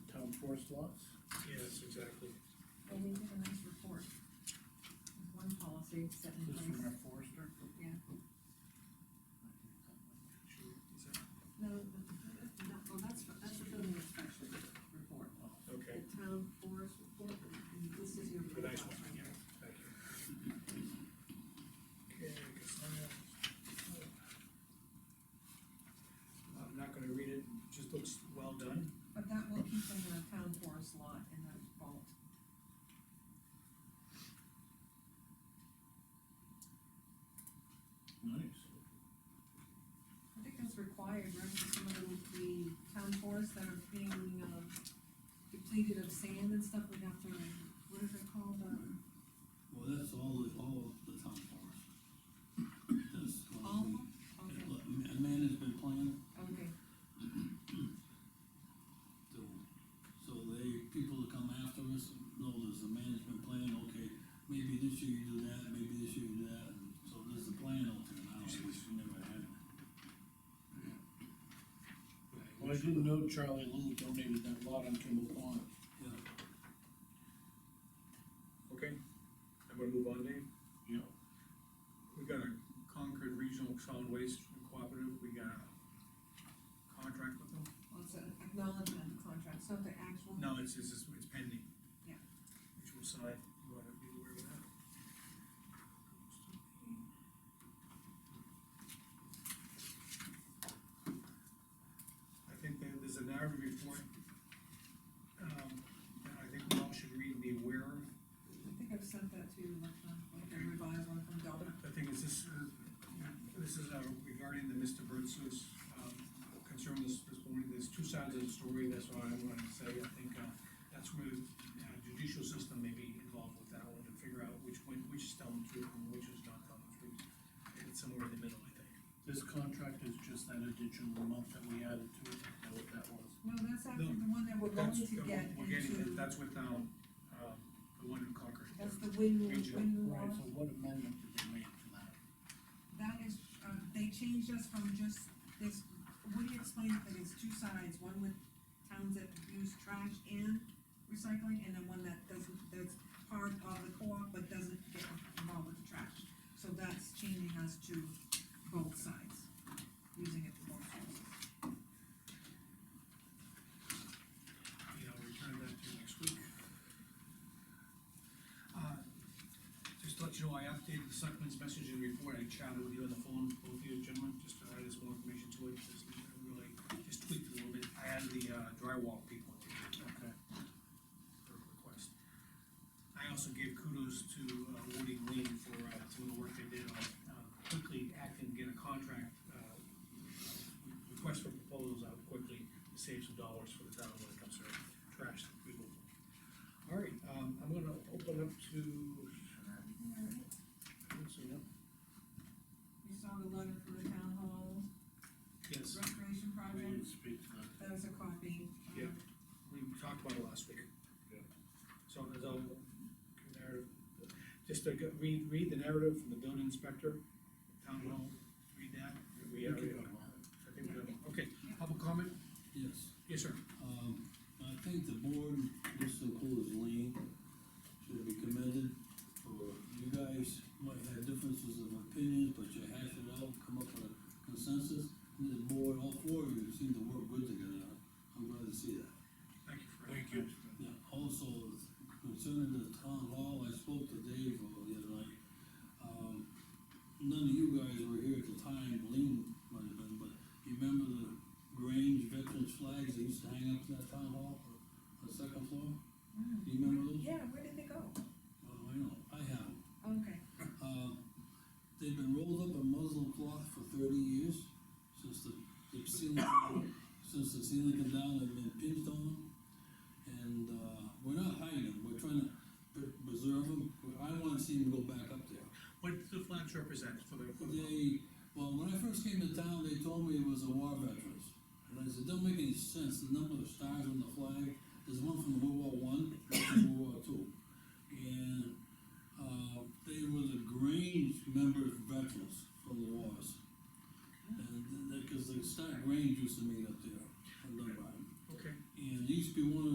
lots. Yes, exactly. Well, we did a nice report. There's One policy set in This is from place. our forester? Yeah. No, the- the- the- well, that's, that's the building inspection report. Okay, The town forest report, and this is your. The nice profile. one, yeah. thank you. Okay, I guess I'm gonna- I'm not gonna read it, just looks well done. But that will keep them in a town forest lot in that vault. Nice. I think that's required, right, for some of the, the town forests that are being, um, depleted of sand and stuff, we have to, what is it called, um, Well, that's all, the- all of the town forest. This, uh, all, yeah, okay, look, ma- management plan, okay, so, so they, people that come after us know there's a management plan, okay, maybe this year you do that, maybe this year you do that, and so there's a plan out there now, which we never had. Well, I didn't know Charlie Little donated that lot on Kimball Pond. Yeah, Okay, I'm gonna move on, Dave. Yeah. We got a Concord Regional Solid Waste Cooperative, we got a contract with them. well, it's an acknowledgement of the contract, it's not the actual, No, it's, it's, it's pending. Yeah. Which we'll sign, you wanna be aware of that. I think that there's a narrative report, um, that I think we all should read and be aware of. I think I've sent that to you, like, uh, like a revised one from Delta. I think is this, uh, this is uh, regarding the Mr. Burtz's, um, concern this, this morning, there's two sides of the story, that's what I wanted to say, I think, uh, that's where uh, judicial system may be involved with that one, to figure out which, one- which is telling the truth and which is not telling the truth. And It's somewhere in the middle, I think. This contract is just that additional month that we added to it, is that what that was? No, that's actually the one that we're going That's- to get We're getting, into, that's with, um, um, the one in Concord. that's the wind, Region. Right, wind law. so what amendment did they make to that? That is, uh, they changed us from just, this, Woody explained that it's two sides, one with towns that use trash and recycling, and then one that doesn't, that's part of the co-op but doesn't get involved with the trash. So that's changing us to both sides, using it for both sides. Yeah, I'll return that to you next week. Uh, Just to let you know, I updated the selectmen's message and report, I chatted with you on the phone, both of you gentlemen, just to add this more information to it, just uh, really, just tweaked it a little bit, I added the uh, drywall people to the Okay. per request. I also gave kudos to uh, Woody and Lean for uh, some of the work they did on uh, quickly acting, to get a contract, uh, request for proposals out quickly to save some dollars for the town when it comes to trash removal. All right, um, I'm gonna open up to, let's see, no, You saw the letter from the town hall yes, restoration We project, didn't speak to that. that was a copy. Um, Yeah. we talked about it last week. Yeah. So there's a narrative, just to go- read, read the narrative from the building inspector, town hall, read that. We, We uh, could go tomorrow. I think we're, gonna- okay, public comment? yes. Yes, sir. Um, I think the board, this includes Lean, should be commended for, you guys might have differences of opinion, but you hash it out, come up with a consensus. And the board, all four of you seem to work good together, I'm glad to see that. Thank you for. Thank you. Yeah, also concerning the town hall, I spoke to Dave uh, the other night. Um, none of you guys were here at the time, Lean might have been, but you remember the Grange veterans flags they used to hang up in that town hall on the second floor? Mm. Do you remember those? Yeah, where did they go? Oh, Oh, I know, I have 'em. Okay, Um, they've been rolled up in muslin cloth for thirty years, since the, the ceiling, since the ceiling came down, they've been pinched on them. And, uh, we're not hiding them, we're trying to pre- preserve them, I wanna see them go back up there. What does the flags represent for the, for the, They, well, when I first came to town, they told me it was a war veterans. And I said, don't make any sense, the number of stars on uh,